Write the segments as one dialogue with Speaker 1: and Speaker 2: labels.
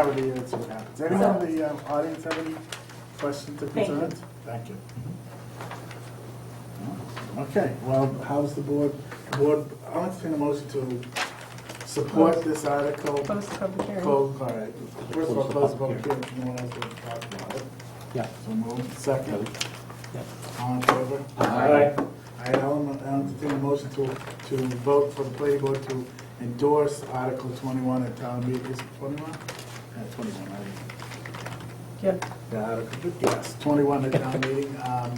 Speaker 1: Over the year and see what happens. Anyone in the um, audience have any questions or
Speaker 2: Thank you.
Speaker 1: concerns? Thank you. Okay, well, how's the board, the board, I'll entertain a motion to support this article.
Speaker 2: Close the public hearing.
Speaker 1: Close, all right. First of all, close the public hearing, if anyone else wants to talk about it.
Speaker 3: Yeah.
Speaker 1: So move. Second.
Speaker 3: Yeah.
Speaker 1: All in favor?
Speaker 3: Aye.
Speaker 1: I entertain a motion to, to vote for the planning board to endorse Article twenty-one at town meeting, is it twenty-one? Yeah, twenty-one, I think.
Speaker 2: Yeah,
Speaker 1: Yeah, Article, yes, twenty-one at town meeting, um,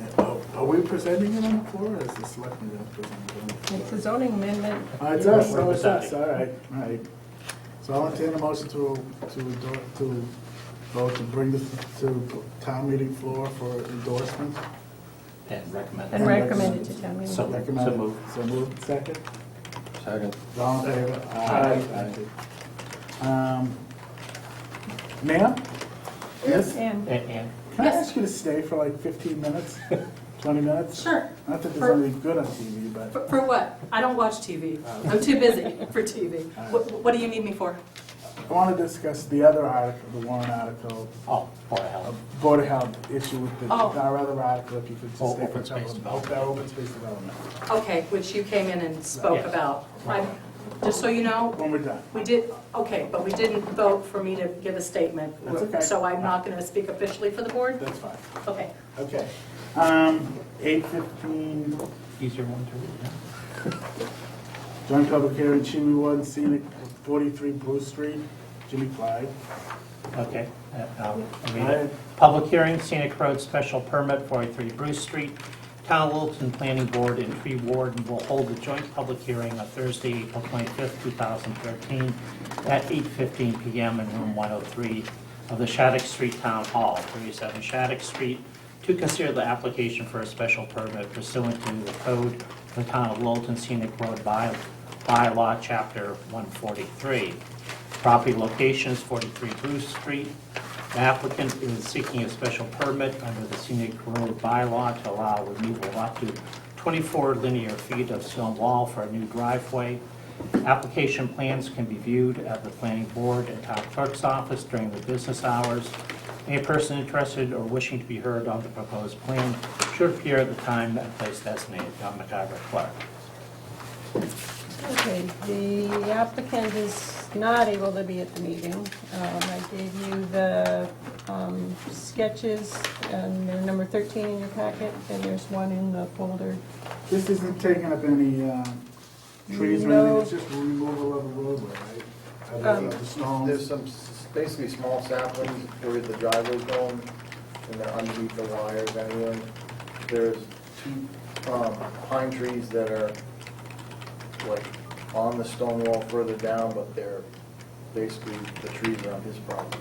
Speaker 1: and, oh, are we presenting it on the floor, or is the selectmen gonna present it on the floor?
Speaker 2: it's a zoning amendment.
Speaker 1: Oh, it's us, so it's us, all right, all right. So I'll entertain a motion to, to, endor- to vote to bring this to town meeting floor for endorsement.
Speaker 3: And
Speaker 2: And
Speaker 3: recommend.
Speaker 2: recommend it to town meeting.
Speaker 3: So-
Speaker 1: Recommended.
Speaker 3: so moved.
Speaker 1: So moved, second.
Speaker 3: Second.
Speaker 1: All in favor?
Speaker 3: Aye.
Speaker 1: Thank you. Um, Ma'am? Yes?
Speaker 2: And,
Speaker 3: And, and
Speaker 1: Can I ask you to stay for like 15 minutes, 20 minutes?
Speaker 4: Sure.
Speaker 1: Not that there's anything good on TV, but
Speaker 4: For, for what? I don't watch TV. I'm too busy for TV.
Speaker 1: Uh,
Speaker 4: What, what do you need me for?
Speaker 1: I want to discuss the other article, the warrant article,
Speaker 3: oh, Board of Health.
Speaker 1: Board of Health issue with the,
Speaker 4: Oh.
Speaker 1: our other article, if you could
Speaker 3: Oh,
Speaker 1: just stay for a
Speaker 3: open space
Speaker 1: couple of-
Speaker 3: development.
Speaker 1: Our open space development.
Speaker 4: Okay, which you came in and spoke
Speaker 3: Yes.
Speaker 4: about. I'm, just so you know,
Speaker 1: When we're done.
Speaker 4: we did, okay, but we didn't vote for me to give a statement.
Speaker 1: That's okay.
Speaker 4: So I'm not going to speak officially for the board?
Speaker 1: That's fine.
Speaker 4: Okay.
Speaker 1: Okay. Um, 8:15,
Speaker 3: Easier one to read.
Speaker 1: Joint public hearing, Chimney One, scenic, 43 Bruce Street, Jimmy Clyde.
Speaker 3: yeah? Okay. uh, I'll read
Speaker 1: Aye.
Speaker 3: it. Public hearing, scenic road special permit, 43 Bruce Street. Town of Littleton Planning Board and Tree Warden will hold a joint public hearing on Thursday, April 25th, 2013, at 8:15 PM in room 103 of the Shattuck Street Town Hall, 37 Shattuck Street, to consider the application for a special permit pursuant to the code of the Town of Littleton Scenic Road by bylaw, Chapter 143. Property location is 43 Bruce Street. The applicant is seeking a special permit under the scenic road bylaw to allow removal up to 24 linear feet of stone wall for a new driveway. Application plans can be viewed at the planning board and town clerk's office during the business hours. Any person interested or wishing to be heard on the proposed plan should appear at the time and place designated. John McIver, clerk.
Speaker 2: okay, the applicant is not able to be at the meeting. Um, I gave you the um, sketches, and they're number 13 in your packet, and there's one in the folder.
Speaker 1: This isn't taking up any um, trees or anything,
Speaker 2: No.
Speaker 1: it's just removal of a roadway, right? Of the- of the
Speaker 5: There's
Speaker 1: stones.
Speaker 5: some, s- basically small saplings where the driveway's going, and they're underneath the wires anyway. There's two um, pine trees that are like on the stone wall further down, but they're basically, the trees are on his property.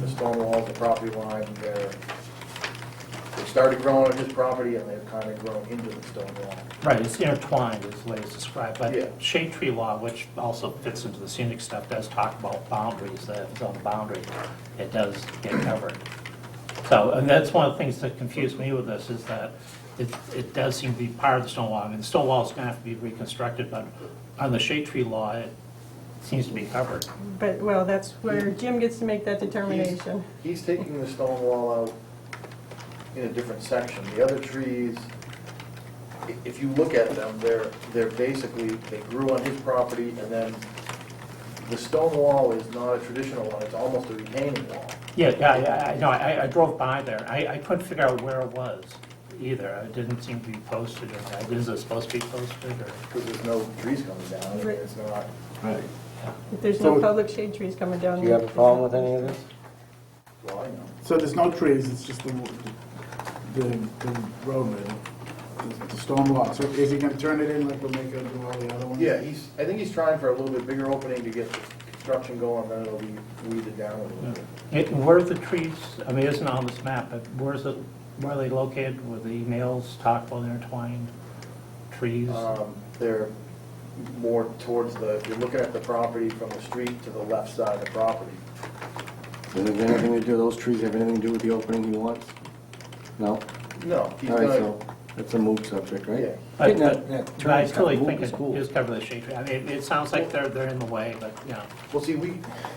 Speaker 5: The stone wall's the property line, they're, they started growing on his property and they've kind of grown into the stone wall.
Speaker 3: Right, it's intertwined is the way it's described,
Speaker 5: Yeah.
Speaker 3: but shade tree law, which also fits into the scenic stuff, does talk about boundaries, that if it's on a boundary, it does get covered. So, and that's one of the things that confused me with this, is that it, it does seem to be part of the stone wall. I mean, the stone wall is gonna have to be reconstructed, but on the shade tree law, it seems to be covered.
Speaker 2: But, well, that's where Jim gets to make that determination.
Speaker 5: He's taking the stone wall out in a different section. The other trees, i- if you look at them, they're, they're basically, they grew on his property, and then the stone wall is not a traditional one, it's almost a retaining wall.
Speaker 3: Yeah, yeah, yeah, I, no, I, I drove by there, I, I couldn't figure out where it was either. It didn't seem to be posted, or, like, is it supposed to be posted, or?
Speaker 5: Because there's no trees coming down, and it's not,
Speaker 1: Right.
Speaker 2: If there's no
Speaker 1: So-
Speaker 2: public shade trees coming down.
Speaker 6: Do you have a problem with any of this?
Speaker 5: well, I know.
Speaker 1: So there's no trees, it's just the, the, the roadway, the- the stone wall. So is he gonna turn it in like we're making him do all the other ones?
Speaker 5: Yeah, he's, I think he's trying for a little bit bigger opening to get the construction going, then it'll be weeded down a little bit.
Speaker 3: It- Where are the trees, I mean, it's not on this map, but where's it, where are they located? Were the nails talked about intertwined trees?
Speaker 5: Um, They're more towards the, if you're looking at the property from the street to the left side of the property.
Speaker 6: Does it have anything to do, those trees have anything to do with the opening he wants? No?
Speaker 5: No, he's
Speaker 6: All right,
Speaker 5: gonna,
Speaker 6: so-
Speaker 1: That's a moot subject, right?
Speaker 5: Yeah.
Speaker 3: But-
Speaker 1: Getting that-
Speaker 3: but-
Speaker 1: that
Speaker 3: but I
Speaker 1: turtle's got
Speaker 3: totally
Speaker 1: moot
Speaker 3: think
Speaker 1: is
Speaker 3: it
Speaker 1: cool.
Speaker 3: is covered the shade tree. I mean, it- it sounds like they're, they're in the way, but, you know.
Speaker 5: Well, see, we,